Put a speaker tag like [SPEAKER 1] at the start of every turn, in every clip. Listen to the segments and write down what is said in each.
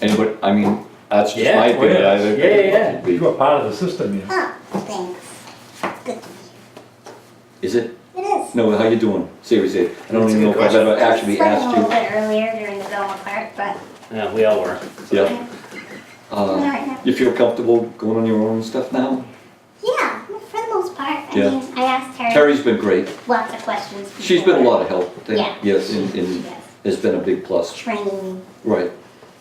[SPEAKER 1] Anybody, I mean, that's just
[SPEAKER 2] Yeah,
[SPEAKER 1] my
[SPEAKER 2] oh,
[SPEAKER 1] opinion.
[SPEAKER 2] yeah.
[SPEAKER 1] I think
[SPEAKER 2] Yeah, yeah, yeah.
[SPEAKER 1] should be-
[SPEAKER 3] You are part of the system, yeah.
[SPEAKER 4] Oh, thanks. Good to meet
[SPEAKER 1] Is it?
[SPEAKER 4] you. It is.
[SPEAKER 1] No, how you doing? Seriously, I don't
[SPEAKER 2] That's a
[SPEAKER 1] even know if
[SPEAKER 2] good
[SPEAKER 1] I've
[SPEAKER 2] question.
[SPEAKER 1] ever actually
[SPEAKER 4] Started
[SPEAKER 1] asked
[SPEAKER 4] A little
[SPEAKER 1] you.
[SPEAKER 4] bit earlier during the Belmont Park, but
[SPEAKER 2] Yeah, we all were.
[SPEAKER 1] Yeah.
[SPEAKER 4] I'm all
[SPEAKER 1] Uh,
[SPEAKER 4] right now.
[SPEAKER 1] You feel comfortable going on your own and stuff now?
[SPEAKER 4] Yeah, for the most part. I
[SPEAKER 1] Yeah.
[SPEAKER 4] mean, I asked her
[SPEAKER 1] Terry's been great.
[SPEAKER 4] lots of questions. before.
[SPEAKER 1] She's been a lot of help. Thank-
[SPEAKER 4] Yeah.
[SPEAKER 1] Yes, and,
[SPEAKER 4] She
[SPEAKER 1] and
[SPEAKER 4] does.
[SPEAKER 1] has been a big plus.
[SPEAKER 4] Training,
[SPEAKER 1] Right,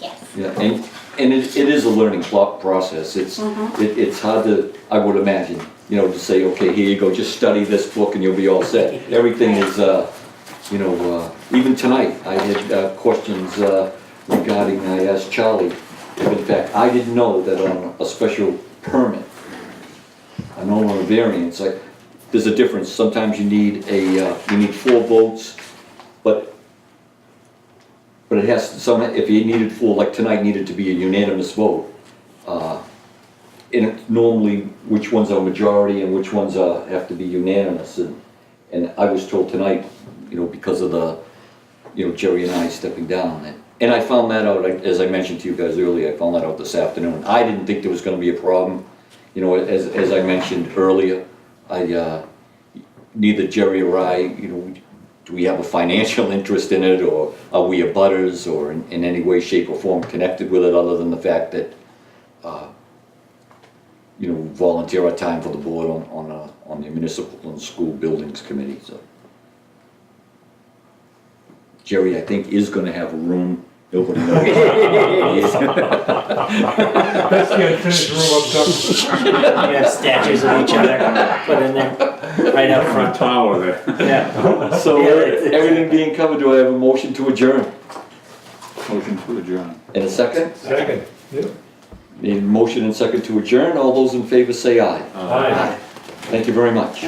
[SPEAKER 4] yes.
[SPEAKER 1] yeah, and, and it, it is a learning plo- process. It's,
[SPEAKER 4] Mhm.
[SPEAKER 1] it, it's hard to, I would imagine, you know, to say, okay, here you go, just study this book and you'll be all set. Everything is, uh, you know, uh, even tonight, I had uh, questions uh, regarding, I asked Charlie, if in fact, I didn't know that on a special permit, I know on a variance, like, there's a difference, sometimes you need a, uh, you need four votes, but, but it has, some, if you needed four, like tonight needed to be a unanimous vote. Uh, And it- normally, which ones are majority and which ones are, have to be unanimous, and, and I was told tonight, you know, because of the, you know, Jerry and I stepping down, and, and I found that out, like, as I mentioned to you guys earlier, I found that out this afternoon, I didn't think there was gonna be a problem, you know, as, as I mentioned earlier, I, uh, neither Jerry or I, you know, do we have a financial interest in it, or are we abutters, or in, in any way, shape, or form connected with it, other than the fact that, uh, you know, volunteer our time for the board on, on, uh, on the municipal and school buildings committee, so. Jerry, I think, is gonna have a room, nobody knows.
[SPEAKER 3] That's the unfinished room up
[SPEAKER 2] You have statues of each other put in there, right out front.
[SPEAKER 5] tower there.
[SPEAKER 2] Yeah.
[SPEAKER 1] So, everything being covered, do I have a motion to adjourn?
[SPEAKER 5] Motion to adjourn.
[SPEAKER 1] In a second?
[SPEAKER 3] top. Second, yeah.
[SPEAKER 1] Need a motion and second to adjourn, all those in favor say aye.
[SPEAKER 3] Aye.
[SPEAKER 1] Thank you very much.